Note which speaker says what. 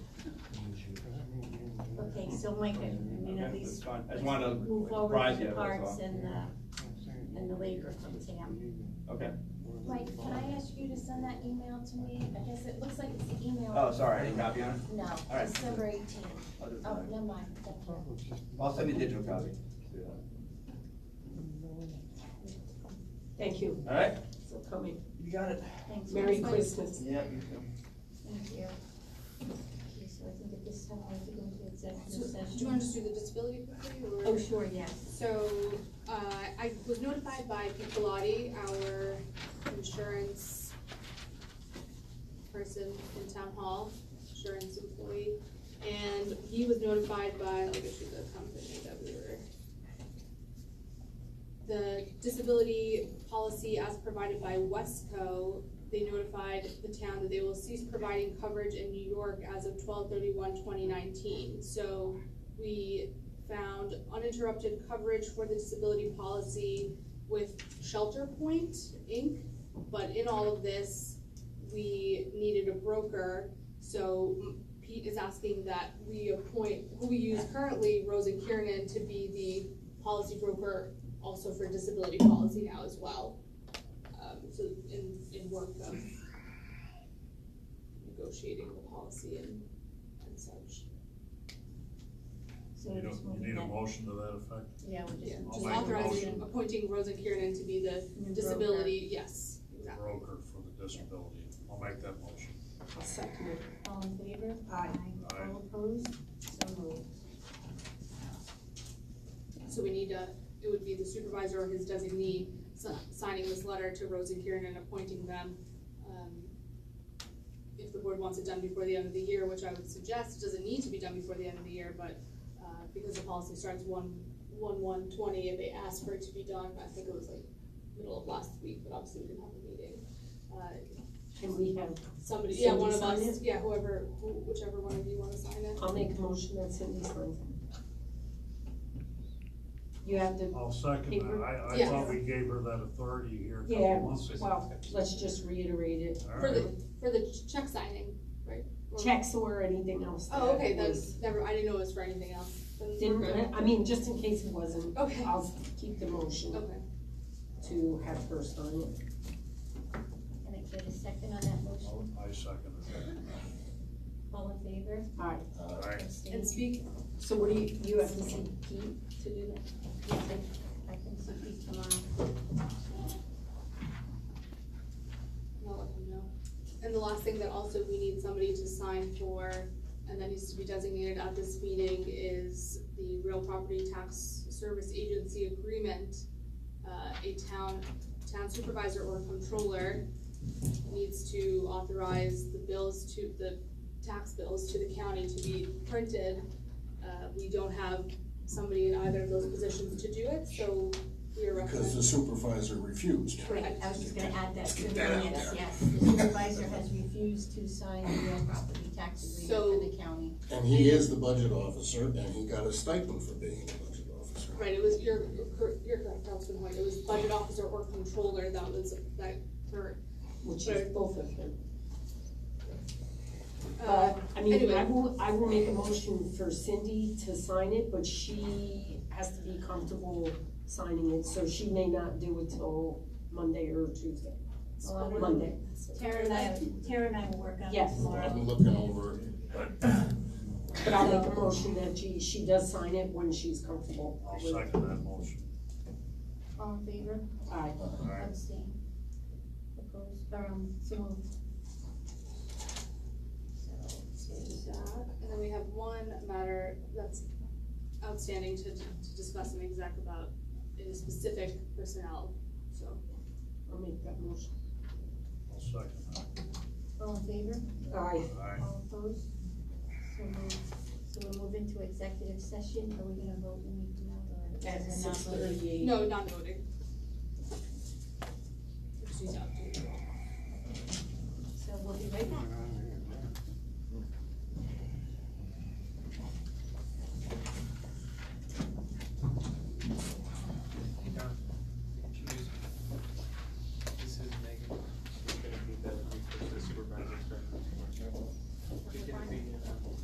Speaker 1: Okay, so Micah, I mean, at
Speaker 2: Okay, that's
Speaker 1: least.
Speaker 2: fine. I
Speaker 1: let's
Speaker 2: just wanted to
Speaker 1: Move forward
Speaker 2: rise
Speaker 1: with the
Speaker 2: yet, that's
Speaker 1: parks
Speaker 2: all.
Speaker 1: and, uh, and the waiver from Sam.
Speaker 2: Okay.
Speaker 3: Mike, can I ask you to send that email to me? I guess it looks like it's the email.
Speaker 2: Oh, sorry, I didn't copy on it.
Speaker 3: No,
Speaker 2: right.
Speaker 3: December eighteenth.
Speaker 2: I'll do it
Speaker 3: Oh,
Speaker 2: tonight.
Speaker 3: never mind. Thank you.
Speaker 1: Oh.
Speaker 2: I'll send you a digital copy.
Speaker 1: Thank you
Speaker 2: All right?
Speaker 1: for coming.
Speaker 2: You got it.
Speaker 3: Thanks.
Speaker 1: Merry
Speaker 3: Mike.
Speaker 1: Christmas.
Speaker 2: Yeah, you too.
Speaker 3: Thank you. Okay, so I think at this time, I have to go into
Speaker 4: So,
Speaker 3: executive
Speaker 4: do
Speaker 3: session.
Speaker 4: you want us to do the disability quickly, or?
Speaker 1: Oh, sure, yes.
Speaker 4: So, uh, I was notified by Pete Bellotti, our insurance person in town hall, insurance employee, and he was notified by, like, it's the company that we were. The disability policy as provided by Wesco, they notified the town that they will cease providing coverage in New York as of 2019. So, we found uninterrupted coverage for the disability policy with ShelterPoint Inc. But in all of this, we needed a broker, so Pete is asking that we appoint, who we use currently, Rosa Kiernan, to be the policy broker also for disability policy now as well. Um, so in, in work of negotiating the policy and, and such.
Speaker 1: So
Speaker 5: You
Speaker 1: we're
Speaker 5: don't,
Speaker 1: just
Speaker 5: you
Speaker 1: moving
Speaker 5: need a
Speaker 1: that.
Speaker 5: motion to that effect?
Speaker 1: Yeah, we're
Speaker 4: Yeah,
Speaker 1: just
Speaker 5: I'll
Speaker 4: just
Speaker 5: make a
Speaker 4: authorizing,
Speaker 5: motion.
Speaker 4: appointing Rosa Kiernan to be the
Speaker 1: moving.
Speaker 4: disability, yes, exactly.
Speaker 5: Broker for the disability. I'll make that motion.
Speaker 1: I'll second it. All in favor? Aye.
Speaker 5: Aye.
Speaker 1: All opposed? So moved.
Speaker 4: So we need to, it would be the supervisor or his designee si- signing this letter to Rosa Kieran and appointing them. Um, If the board wants it done before the end of the year, which I would suggest, it doesn't need to be done before the end of the year, but uh, because the policy starts one, one, one, twenty, and they asked for it to be done, I think it was like middle of last week, but obviously we didn't have a meeting. Uh,
Speaker 1: Can we have,
Speaker 4: Somebody, yeah, one of
Speaker 1: Somebody sign
Speaker 4: us, yeah, whoever, who- whichever one of you wanna sign it.
Speaker 1: I'll make a motion that Cindy signs it. You have to,
Speaker 5: I'll second that.
Speaker 1: Paper?
Speaker 5: I, I
Speaker 4: Yes.
Speaker 5: thought we gave her that authority here a
Speaker 1: Yeah,
Speaker 5: couple months ago.
Speaker 1: well, let's just reiterate it.
Speaker 5: All
Speaker 4: For
Speaker 5: right.
Speaker 4: the, for the check signing, right? Or-
Speaker 1: Checks or anything else.
Speaker 4: Oh,
Speaker 1: that
Speaker 4: okay,
Speaker 1: was-
Speaker 4: that's, never, I didn't know it was for anything else. Then we're
Speaker 1: Didn't,
Speaker 4: good.
Speaker 1: I mean, just in case it wasn't,
Speaker 4: Okay,
Speaker 1: I'll keep the motion
Speaker 4: okay.
Speaker 1: to have her sign it.
Speaker 3: Can I get a second on that motion?
Speaker 5: I second it.
Speaker 3: All in favor?
Speaker 1: Aye.
Speaker 5: All right.
Speaker 3: Abstain?
Speaker 4: And speak,
Speaker 1: So what do you, you have to
Speaker 3: Is
Speaker 1: see,
Speaker 3: it Pete to do that? Yes, I I can see Pete tomorrow.
Speaker 4: and I'll let them know. And the last thing that also we need somebody to sign for, and that needs to be designated at this meeting, is the real property tax service agency agreement. Uh, a town, town supervisor or controller needs to authorize the bills to, the tax bills to the county to be printed. Uh, we don't have somebody in either of those positions to do it, so we are
Speaker 6: Because
Speaker 4: recommending.
Speaker 6: the supervisor refused.
Speaker 3: Right, I was just gonna add that
Speaker 6: Let's
Speaker 3: to
Speaker 6: get
Speaker 3: the
Speaker 6: that out
Speaker 3: minutes,
Speaker 6: there.
Speaker 3: yes. The supervisor has refused to sign the real property tax agreement for the county.
Speaker 6: And he is the budget officer, and he got a stipend for being the budget officer.
Speaker 4: Right, it was, you're, you're- you're correct, Councilman Hoyt, it was budget officer or controller that was, that, for,
Speaker 1: which is both of them.
Speaker 4: uh,
Speaker 1: But, Uh, I mean, I
Speaker 4: anyway.
Speaker 1: will, I will make a motion for Cindy to sign it, but she has to be comfortable signing it, so she may not do it till Monday or Tuesday.
Speaker 3: Well, I'm-
Speaker 1: Monday.
Speaker 3: Tara and I, Tara and I will work on it
Speaker 1: Yes.
Speaker 3: tomorrow.
Speaker 6: I'm looking over it.
Speaker 1: But I'll make a motion that she, she does sign it when she's comfortable.
Speaker 5: I'll
Speaker 1: with-
Speaker 5: second that motion.
Speaker 3: All in favor?
Speaker 1: Aye.
Speaker 5: All right.
Speaker 3: Abstain. Opposed, or, um, so moved. So, uh,
Speaker 4: there's that. and then we have one matter that's outstanding to, to discuss and exec about, it is specific personnel, so.
Speaker 1: I'll make that motion.
Speaker 5: I'll second that.
Speaker 3: all in favor?
Speaker 1: Aye.
Speaker 5: All right.
Speaker 3: All opposed? So moved. So we'll move into executive session, are we gonna vote when we do that, or?
Speaker 1: At
Speaker 3: is it not
Speaker 1: six
Speaker 3: voted?
Speaker 1: thirty-eight.
Speaker 4: No, non-voting. Just use that.
Speaker 3: So we'll be right back.